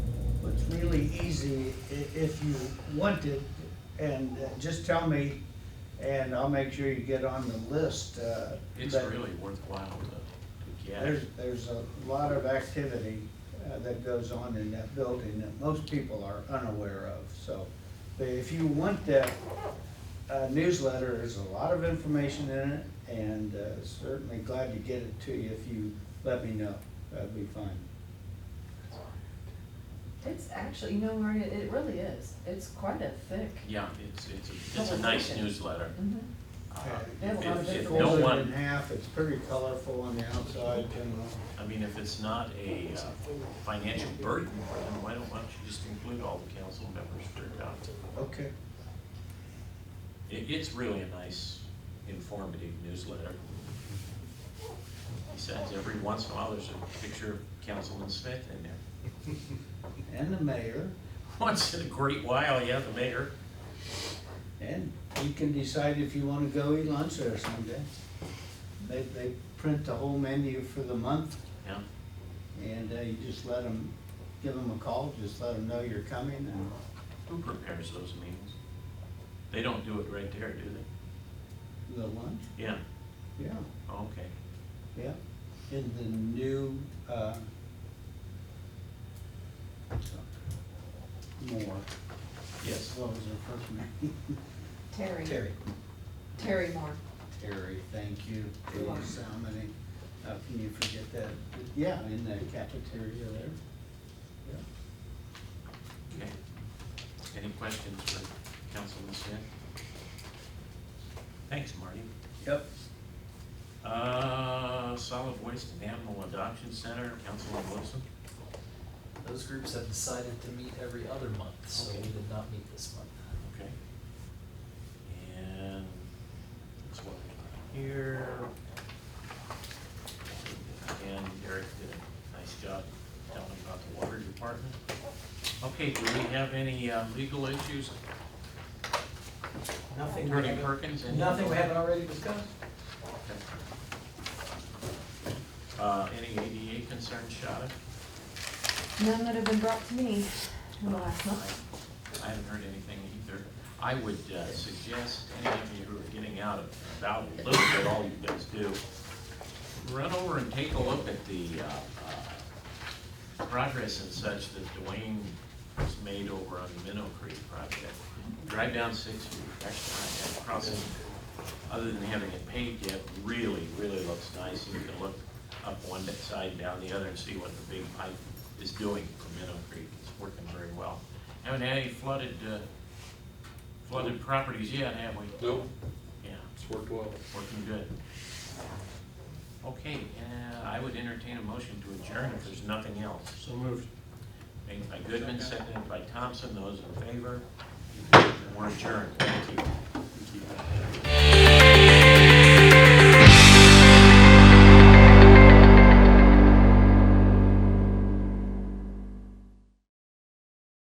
really easy i- if you want it, and uh, just tell me, and I'll make sure you get on the list. uh, It's but really worthwhile to, to There's, get. there's a lot of activity uh, that goes on in that building that most people are unaware of, so. But if you want that uh, newsletter, there's a lot of information in it, and uh, certainly glad to get it to you if you let me know, that'd be fine. It's actually, you know, Maria, it really is. It's quite a thick. Yeah, it's, it's, a- it's a nice Publication. newsletter. Mhm. Uh, They have a lot of If, if different- no Folds Folds it in one, half, it's pretty colorful on the outside, and I mean, if it's not a uh, financial burden for them, why don't, why don't you just include all the council members for a copy? uh, okay. It, it's really a nice informative newsletter. Besides, every once in a while, there's a picture of Councilman Smith in there. And the mayor, Once in a great while, yeah, the mayor. and you can decide if you wanna go eat lunch there someday. They, they print the whole menu for the month, Yeah, and uh, you just let them, give them a call, just let them know you're coming, and who prepares those meals? They don't do it right there, do they? the lunch, Yeah, yeah, okay. yeah. In the new, uh, Moore, Yes, what was her first name? Terry. Terry. Terry Moore. Terry, thank you. You're welcome. Please, how many, how can you forget that? Yeah, in the cafeteria there. Yeah. okay. Any questions for Councilman Smith? Thanks, Marty. Yep. Uh, solid waste and animal adoption center, Councilman Wilson? Those groups have decided to meet every other month, so we Okay. did not meet this month. Okay. And that's what we have here. And Eric did a nice job telling about the water department. Okay, do we have any uh, legal issues? Nothing we Attorney haven't- Perkins? any- Nothing we haven't already discussed? Okay. Uh, any ADA concerns, Shada? None that have been brought to me in the last month. I haven't heard anything either. I would uh, suggest any of you who are getting out of about a little bit, all you guys do, run over and take a look at the uh, uh, progress and such that Dwayne has made over on the Minnow Creek project. Drive down Sixth Street, actually, that crossing, other than having it paved yet, really, really looks nice. You can look up one side, down the other, and see what the big pipe is doing for Minnow Creek. It's working very well. Haven't had any flooded, uh, flooded properties yet, have we? No, Yeah, it's worked well. working good. Okay, uh, I would entertain a motion to adjourn if there's nothing else. So moved. Made by Goodman, seconded by Thompson, those in favor, we're adjourned, thank you.